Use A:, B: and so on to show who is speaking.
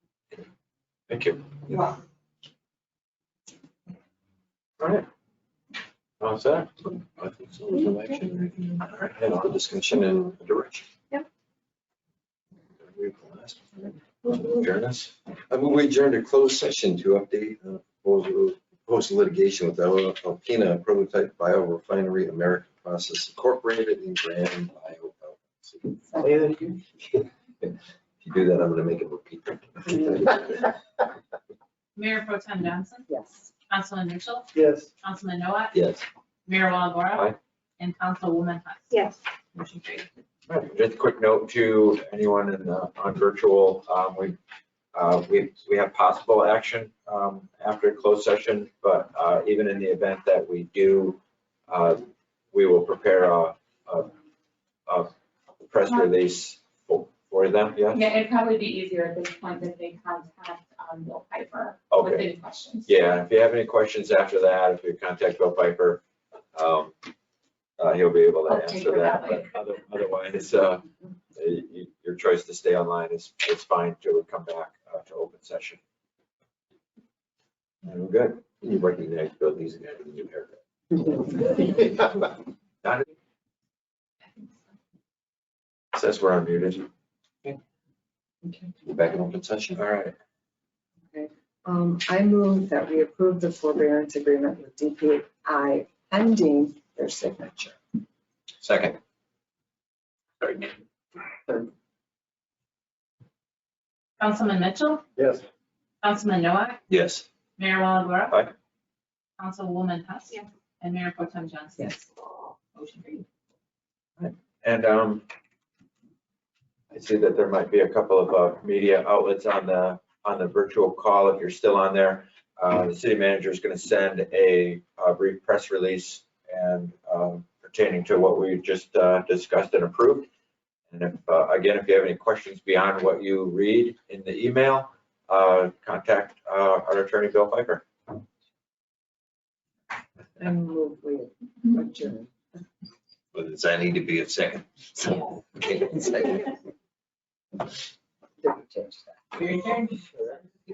A: Thank you.
B: You're welcome.
A: All right. All set? I think so. There's no action. All right, and on discussion and direction.
C: Yep.
A: Read the last one. Adjourn us. I move we adjourn to closed session to update uh, proposal- proposed litigation with Al- Alpena Prototype Biorefinery American Process Incorporated in Grand Bio. LLC. If you do that, I'm gonna make it repeat.
D: Mayor Pro Tem Johnson,
C: Yes.
D: Councilman Mitchell,
E: Yes.
D: Councilman Noah,
A: Yes.
D: Mayor Walagora.
A: Aye.
D: And Councilwoman Hunt.
C: Yes.
D: Motion carried.
A: Right, Just a quick note to anyone in, uh, on virtual, um, we, uh, we, we have possible action, um, after closed session, but, uh, even in the event that we do, uh, we will prepare a, a, a press release for, for them, yeah?
F: Yeah, it'd probably be easier at this point if they contact um, Bill Piper with
A: Okay,
F: any questions.
A: yeah, if you have any questions after that, if you contact Bill Piper, um, uh, he'll be able to
F: I'll take
A: answer
F: her
A: that,
F: that
A: but other- otherwise, uh, y- y- your choice to stay online is, is fine till we come back uh, to open session. And we're good. You recognize Bill, he's a guy with a new haircut. Not- Says we're unmuted. We're back in open session. All right.
C: Um, I move that we approve the forbearance agreement with DPI pending their signature.
A: Second.
D: Councilman Mitchell,
E: Yes.
D: Councilman Noah,
A: Yes.
D: Mayor Walagora.
A: Aye.
D: Councilwoman Hunt.
F: Yeah.
D: And Mayor Pro Tem Johnson.
C: Yes.
D: Motion carried.
A: And um, I see that there might be a couple of uh, media outlets on the, on the virtual call. If you're still on there, uh, the city manager is going to send a uh, brief press release and um, pertaining to what we just uh, discussed and approved. And if, uh, again, if you have any questions beyond what you read in the email, uh, contact uh, our attorney, Bill Piper.
C: I move we adjourn.
A: But does that need to be a second?
F: So-
C: Did we change that?
D: Your turn.